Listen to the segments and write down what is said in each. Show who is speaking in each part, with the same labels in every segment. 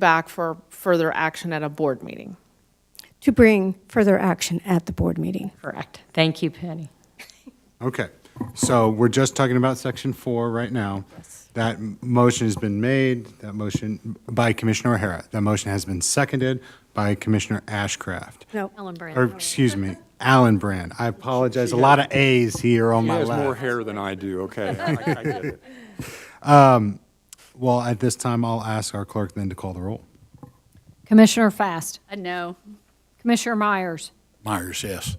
Speaker 1: back for further action at a board meeting.
Speaker 2: to bring further action at the board meeting.
Speaker 3: Correct. Thank you, Penny.
Speaker 4: Okay, so we're just talking about section four right now. That m- motion has been made, that motion by Commissioner O'Hara. That motion has been seconded by Commissioner Ashcraft.
Speaker 2: No,
Speaker 5: Ellen Brand.
Speaker 4: Or, excuse me, Alan Brand. I apologize, a lot of As here on
Speaker 6: He
Speaker 4: my
Speaker 6: has more
Speaker 4: left.
Speaker 6: hair than I do, okay. I I get it.
Speaker 4: Well, at this time, I'll ask our clerk then to call the roll.
Speaker 3: Commissioner Fast.
Speaker 5: Uh, no.
Speaker 3: Commissioner Myers.
Speaker 7: Myers, yes.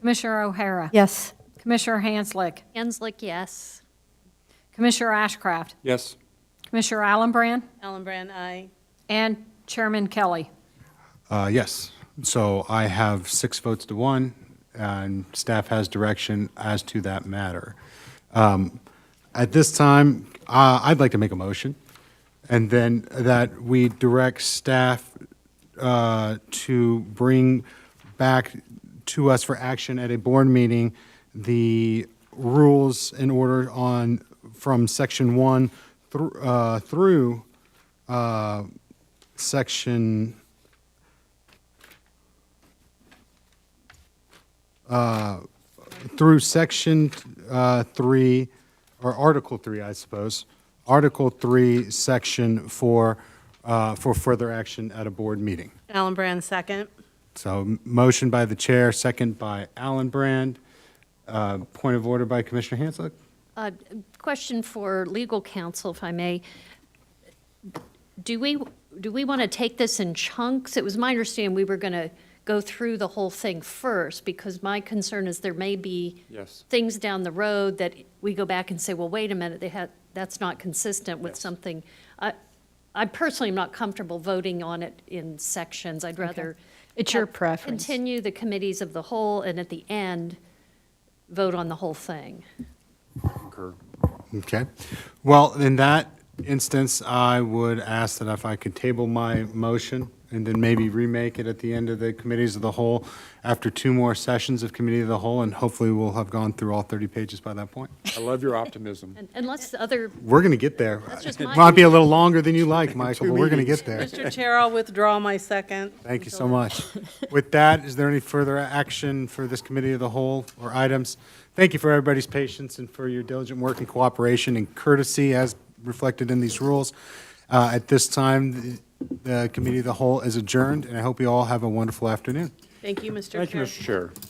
Speaker 3: Commissioner O'Hara.
Speaker 2: yes,
Speaker 3: Commissioner Hanslick.
Speaker 5: Hanslick, yes.
Speaker 3: Commissioner Ashcraft.
Speaker 6: Yes,
Speaker 3: Commissioner Allenbrand.
Speaker 5: Ellen Brand, aye.
Speaker 3: And Chairman Kelly.
Speaker 4: Uh, yes, so I have six votes to one, and staff has direction as to that matter. Um, At this time, uh, I'd like to make a motion, and then that we direct staff uh, to bring back to us for action at a board meeting the rules in order on, from section one through, uh, through, uh, section through section uh, three, or article three, I suppose, article three, section four, uh, for further action at a board meeting.
Speaker 5: Ellen Brand, second.
Speaker 4: So m- motion by the chair, second by Allen Brand, uh, point of order by Commissioner Hanslick.
Speaker 5: Uh, Question for legal counsel, if I may. Do we, do we want to take this in chunks? It was my understanding we were going to go through the whole thing first, because my concern is there may be
Speaker 6: Yes.
Speaker 5: things down the road that we go back and say, well, wait a minute, they had, that's not consistent with something. I I personally am not comfortable voting on it in sections. I'd rather.
Speaker 3: It's your
Speaker 5: have-
Speaker 3: preference.
Speaker 5: Continue the committees of the whole, and at the end, vote on the whole thing.
Speaker 6: concur.
Speaker 4: Okay. Well, in that instance, I would ask that if I could table my motion and then maybe remake it at the end of the committees of the whole after two more sessions of committee of the whole, and hopefully we'll have gone through all 30 pages by that point.
Speaker 6: I love your optimism.
Speaker 5: And Unless the other
Speaker 4: We're going to get there.
Speaker 5: just
Speaker 4: It
Speaker 5: my
Speaker 4: might be a little longer than you like, Michael, but we're going to get there.
Speaker 8: Mr. Chair, I'll withdraw my second.
Speaker 4: Thank you so much. With that, is there any further action for this committee of the whole or items? Thank you for everybody's patience and for your diligent work and cooperation and courtesy as reflected in these rules. Uh, At this time, the- the committee of the whole is adjourned, and I hope you all have a wonderful afternoon.
Speaker 8: Thank you, Mr. Chair.
Speaker 6: Thank you, Mr. Chair.